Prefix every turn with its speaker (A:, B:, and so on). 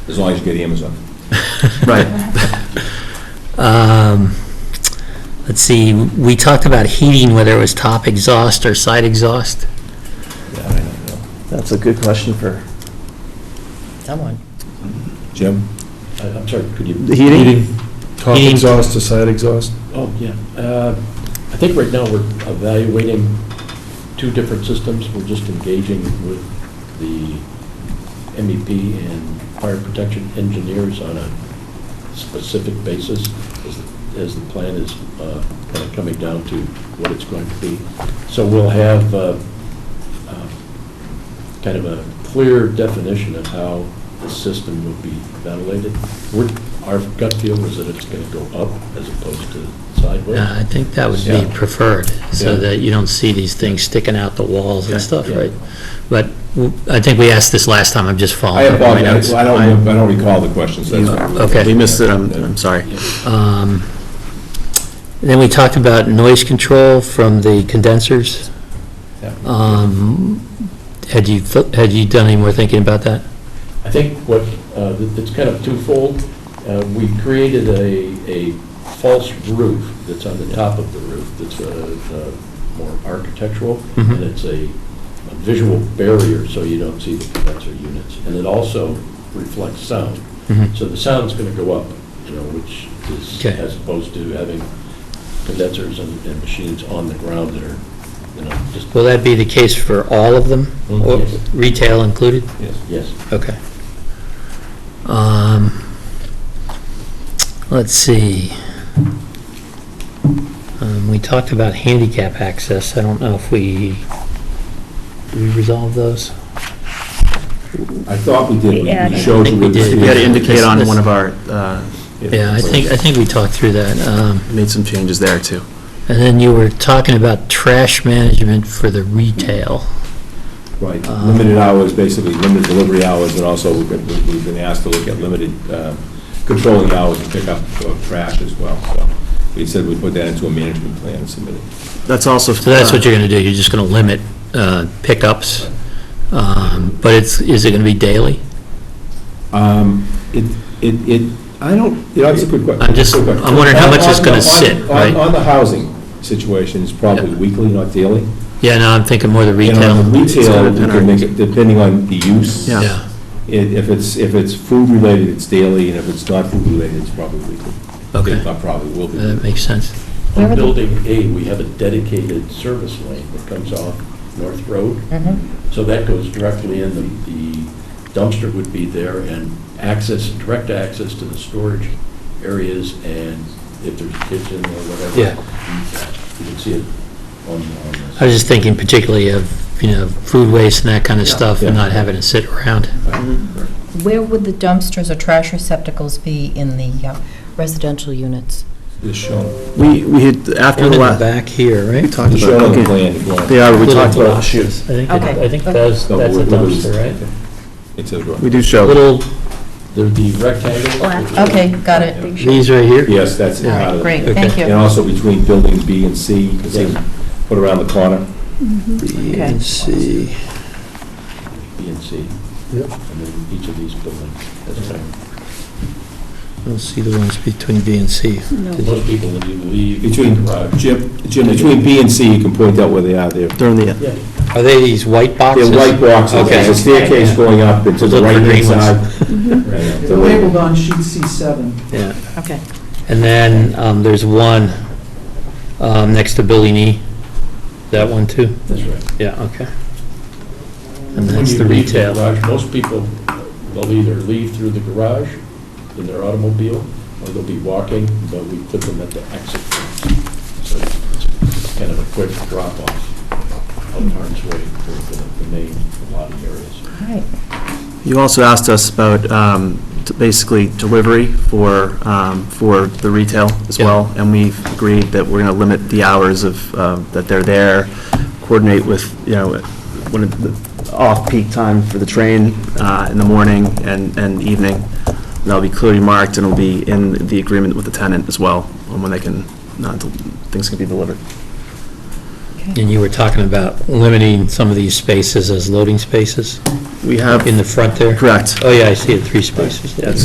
A: as long as you get Amazon.
B: Right.
C: Um, Let's see, we talked about heating, whether it was top exhaust or side exhaust.
A: Yeah, I don't know.
B: That's a good question for
C: Someone.
A: Jim?
D: I- Uh, I'm sorry, could you?
B: the heating.
E: Top
C: Heating.
E: exhaust to side exhaust?
D: Oh, yeah. Uh, I think right now we're evaluating two different systems. We're just engaging with the MEP and fire protection engineers on a specific basis as, as the plan is uh, kind of coming down to what it's going to be. So we'll have uh, uh, kind of a clear definition of how the system will be ventilated. We're- Our gut feel is that it's going to go up as opposed to sideways.
C: Yeah, I think that would be
D: Yeah.
C: preferred, so
D: Yeah.
C: that you don't see these things sticking out the walls and
D: Okay,
C: stuff,
D: yeah.
C: right? But w- I think we asked this last time, I'm just
A: I
C: following up my
A: apologize,
C: notes.
A: I don't, I don't recall the questions. that's-
C: Okay.
B: We missed it, I'm, I'm sorry.
C: Um, Then we talked about noise control from the condensers.
D: Yeah.
C: Um, Had you, th- had you done any more thinking about that?
D: I think what, uh, th- it's kind of twofold. Uh, We created a, a false roof that's on the top of the roof, that's uh, uh, more architectural,
C: Mhm.
D: and it's a a visual barrier, so you don't see the condenser units. And it also reflects sound.
C: Mhm.
D: So the sound's going to go up, you know, which is,
C: Okay.
D: as opposed to having condensers and and machines on the ground that are, you know, just,
C: Will that be the case for all of them,
D: Mm,
C: or
D: yes.
C: retail included?
A: Yes.
D: yes.
C: Okay. Um, Let's see. Um, We talked about handicap access. I don't know if we, did we resolve those?
A: I thought we did,
F: Yeah,
A: we
F: I
A: showed you
C: think we
A: where the
C: did.
B: We had to
A: stairs-
B: indicate on one of our, uh,
C: Yeah, I think, I think we talked through that. Um,
B: made some changes there, too.
C: And then you were talking about trash management for the retail.
A: Right,
C: Um,
A: limited hours, basically limited delivery hours, and also we've been- we've been asked to look at limited uh, controlling hours and pickup of uh, trash as well, so we said we'd put that into a management plan and submit it.
B: That's also.
C: So that's what you're going to do, you're just going to limit uh, pickups, Um, but it's, is it going to be daily?
A: Um, It, it, it, I don't, you know, it's a good question.
C: I'm just-
A: Good question.
C: I'm wondering how much it's gonna
A: On- on-
C: sit,
A: on-
C: right?
A: On the housing situation, it's probably weekly, not daily.
C: Yeah, no, I'm thinking more the
A: And
C: retail.
A: on the
B: It's gonna
A: retail, we
B: depend
A: can
B: on-
A: make it depending on the use.
B: Yeah.
C: Yeah,
A: I- If it's, if it's food-related, it's daily, and if it's not food-related, it's probably weekly.
C: Okay. Uh,
A: If not, probably will be.
C: that makes sense.
F: Where
D: On
F: were the-
D: Building A, we have a dedicated service lane that comes off North Road.
F: Mm-hmm.
D: So that goes directly in, the the dumpster would be there, and access, direct access to the storage areas, and if there's a kitchen or whatever.
C: Yeah.
D: You can see it on, on this.
C: I was just thinking particularly of, you know, food waste and that kind of
D: Yeah.
C: stuff, and
A: Yeah.
C: not having to sit around.
F: Where would the dumpsters or trash receptacles be in the uh, residential units?
A: It's shown,
B: We, we had, after the
C: One in the
B: last.
C: back here, right?
B: We talked
A: it's shown on
B: about,
A: the
B: okay,
A: plan. if you want.
B: they are, we
C: Little
B: talked about,
C: boxes. I think, it-
F: Okay.
C: I think that's,
A: No,
C: that's a
A: we're- we're-
C: dumpster, right?
A: It's a,
B: we do show,
C: Little,
D: They're the rectangle.
F: Oh, Okay, got it.
C: these right here?
A: yes, that's
F: All
A: part of
F: right,
A: it.
F: great,
C: Okay.
F: thank
A: And
F: you.
A: also between building B and C, you can see, put around the corner.
C: B
F: Okay.
C: and C.
D: B and C.
E: Yep.
D: And then each of these buildings. has a thing.
C: I don't see the ones between B and C. Did you-
D: Most people, when you leave.
A: Between,
D: Right.
A: Jim, Jim, Uh, between B and C, you can point out where they are. They're,
B: they're in the,
D: Yeah.
C: Are they these white boxes?
A: they're white boxes. There's a
C: Okay.
A: staircase going up, and to the
C: Look for
A: right-hand
C: green ones.
A: side.
D: Right.
G: They're labeled on sheet C7.
C: Yeah.
F: Okay.
C: And then um, there's one um, next to Billy Knee. That one too?
D: That's right.
C: Yeah, okay. And
D: When
C: that's
D: you uh,
C: the
D: leave
C: retail.
D: garage, Most people will either leave through the garage in their automobile, or they'll be walking, but we put them at the exit. So it's kind of a quick drop-off of harm's way for the- the main lobby areas.
F: All right.
B: you also asked us about, um, t- basically delivery for, um, for the retail as
C: Yeah.
B: well. And we've agreed that we're gonna limit the hours of, um, that they're there, coordinate with, you know, when it- the off-peak time for the train, uh, in the morning and, and evening. And That'll be clearly marked and it'll be in the agreement with the tenant as well, on when they can, uh, del- things can be delivered.
F: Okay.
C: And you were talking about limiting some of these spaces as loading spaces
B: We have,
C: in the front there?
B: correct.
C: Oh, yeah, I see it, three spaces.
B: Yes.